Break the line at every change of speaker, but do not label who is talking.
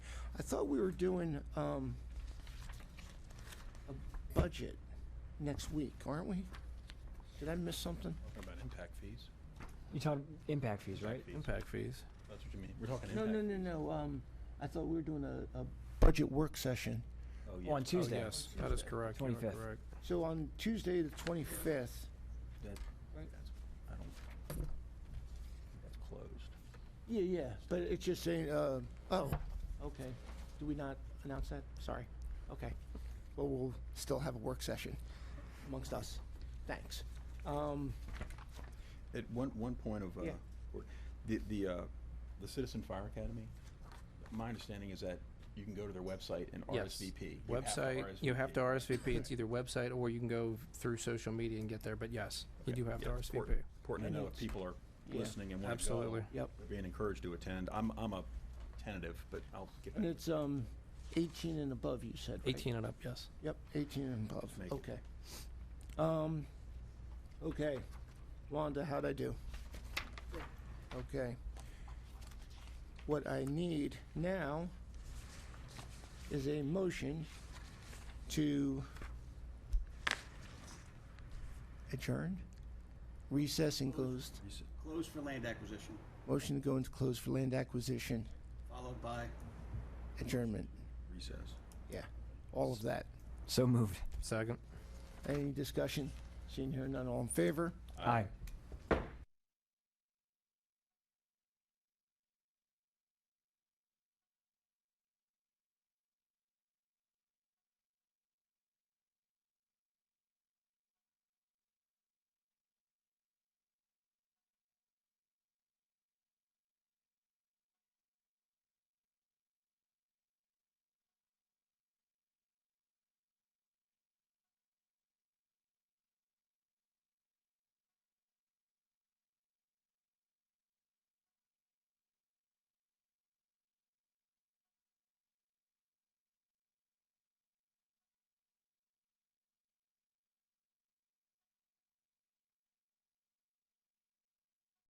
I thought we were doing um, a budget next week, aren't we? Did I miss something?
Talking about impact fees?
You talking impact fees, right?
fees.
Impact fees.
That's what you mean. We're talking
No,
impact.
no, no, no. um, I thought we were doing a, a budget work session.
Oh,
Oh, On
yeah.
Oh,
Tuesday.
yes, that is
Tuesday.
correct. You are
25th.
correct.
So on Tuesday, the 25th,
That- that's- I don't, that's closed.
yeah, yeah, but it's just saying, uh, oh, okay. Do we not announce that? Sorry. Okay. Well, we'll still have a work session amongst us. Thanks. Um,
At one, one point of, uh,
Yeah.
or- the, the, uh, the Citizen Fire Academy, my understanding is that you can go to their website and
Yes.
RSVP. You have to
Website, you have to
RSVP.
RSVP. It's either website or you can go through social media and get there, but yes, you
Okay.
do have to
Yeah, it's
RSVP.
important- Important
And
to know if
it's-
people are
yeah.
listening and want to go.
Absolutely.
Yep.
They're being encouraged to attend. I'm, I'm a tentative, but I'll get back.
And it's um, 18 and above, you said, right?
18 and up, yes.
Yep, 18 and above.
Make it.
Okay. Um, okay. Wanda, how'd I do? Okay. What I need now is a motion to adjourn, recess and closed.
Closed for land acquisition,
Motion to go into close for land acquisition,
followed by
adjournment.
Recess.
Yeah, all of that.
So moved.
Second.
Any discussion? Seeing here none, all in favor?
Aye.